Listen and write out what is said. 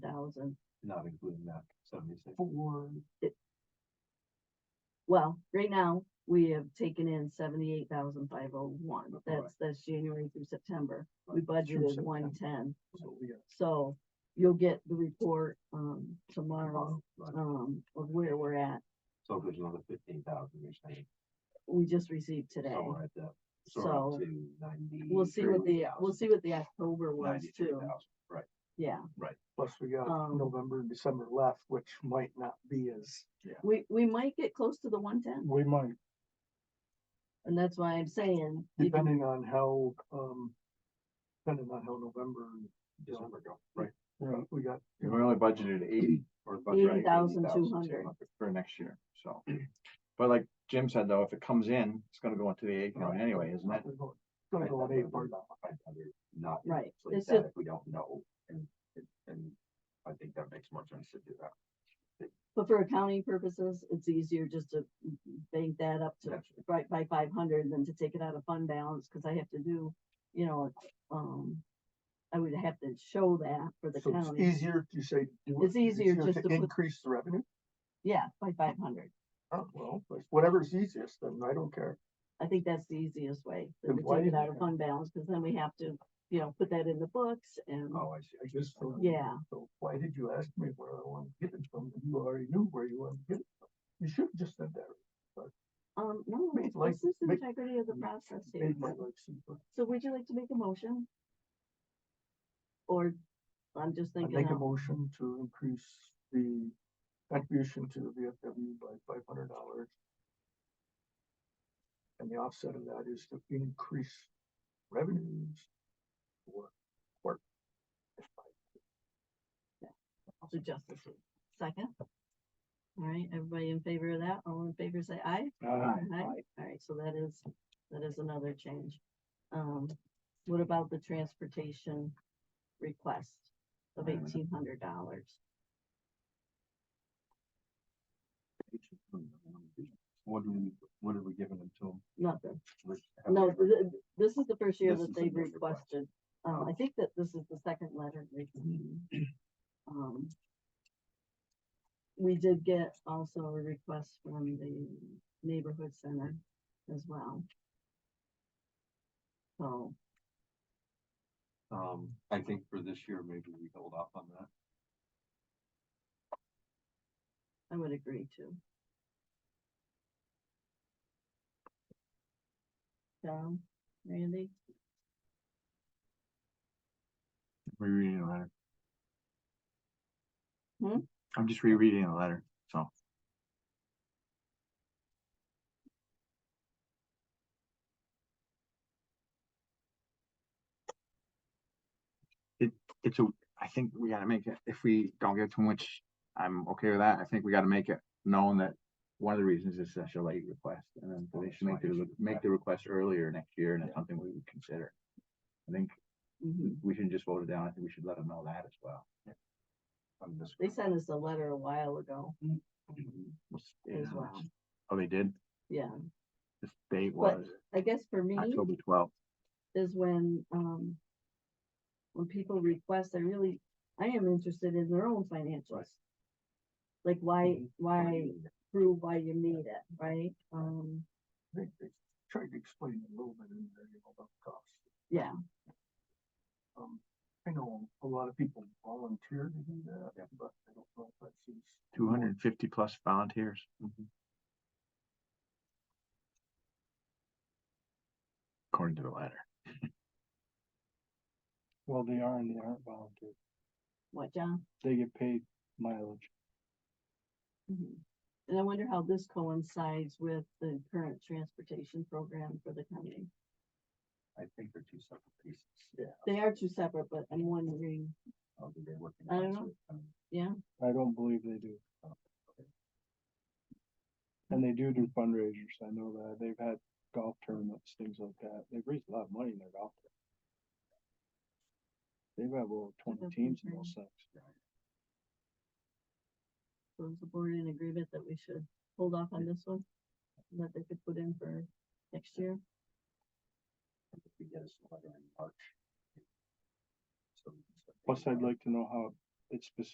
thousand, not including that seventy-six. for it. Well, right now, we have taken in seventy-eight thousand five oh one, Right. that's, that's January through September, we Right, through budgeted September. one-ten, So we got- so you'll get the report, um, tomorrow, Right. um, of where we're at, So there's another fifteen thousand, you're saying, we just received today, somewhere at that, so. so to ninety. We'll see what the, we'll see what the October was too, Right, yeah, Plus we got Um, November and December left, which might not be as, we, we might get close to the one-ten, we might, and that's why I'm saying. you can- depending on how, um, depending on how November. and December go, right. Right, we got, We only budgeted eighty or budget Eighty right, thousand two 80,200. hundred, for next year, so. But like Jim said though, if it comes in, it's gonna go into the A account Right. anyway, isn't it? we're going- gonna go I'd on rather eight part. not- I'd rather Not. Right, inflate it's that just- If we don't know, and, and- and I think that makes more sense to do that. but for accounting purposes, it's easier just to bank that up to Gotcha. right by five hundred than to take it out of fund balance, cause I have to do, you know, um. I would have to show that for the So it's county, easier to say. do it, It's easier just to To put- increase the revenue, yeah, by five hundred, oh, well, but whatever's easiest, then I don't care. I think that's the easiest way, Then than to why take it didn't out you of have- fund balance, cause then we have to, you know, put that in the books and. Oh, I see. I Just so- Yeah. So why did you ask me where I want to get it from? You already knew where you wanted to get it from. You should have just said that. Um, no, Make life- this is the make- integrity of the process here. Made my life simpler. So would you like to make a motion? Or, I'm just I thinking, make a out- motion to increase the contribution to the VFW by five hundred dollars. And the offset of that is to increase revenues. for court. the justice, League. second? All right, everybody in favor of that, all in favor say aye? All right, so that is, that is another change. Um, what about the transportation request of Wait a minute. eighteen hundred dollars? What do we, what are we giving them to them? Nothing, Which- have no, we ever- th- th- this is the first year This that is the they've first request. requested, um, I think that this is the second letter they've Mm-hmm. received. Um. We did get also a request from the neighborhood center as well. So, Um, I think for this year, maybe we hold off on that. I would agree to. Tom, Randy, Rereading the letter. Hmm? I'm just rereading the letter, so. It, it's a, I think we gotta make it, if we don't get too much, I'm okay with that, I think we gotta make it known that one of the reasons is such a late request, and then Well, they that's should make my the, issue. make the request earlier next year, and it's Yeah. something we would consider. I think Mm-hmm. Mhm. we shouldn't just vote it down. I think we should let them know that as well. I'm just. they sent us a letter a while ago It's- you as know, well, it's- Oh, they did? yeah, This date But- was I guess for me. October twelfth. is when, um, when people request, I really, I am interested in their own financials. Like why, Mhm. why prove why you need it, right? Um, I think they tried to explain a little bit in there, you know, about costs. yeah, Um, I know a lot of people volunteer to do Yeah. that, but I don't know if that's. easy. Two hundred and fifty plus volunteers. Mm-hmm. According to the letter. Well, they are and they aren't volunteer. what, John? They get paid mileage. Mhm. And I wonder how this coincides with the current transportation program for the county. I think they're two separate pieces. Yeah. They are two separate, but I'm wondering, I'll be there working. I don't on know. this with them. I don't believe they do. Oh, okay. And they do do fundraisers. I know that. They've had golf tournaments, things like that. They've raised a lot of money in their golf. tournament. They've had over twenty That's teams in okay. those things. was the board in agreement that we should hold off on this one? That they could put in for next year? If we get us a letter in March. So we can start Plus, thinking I'd about it. like to know how it's specific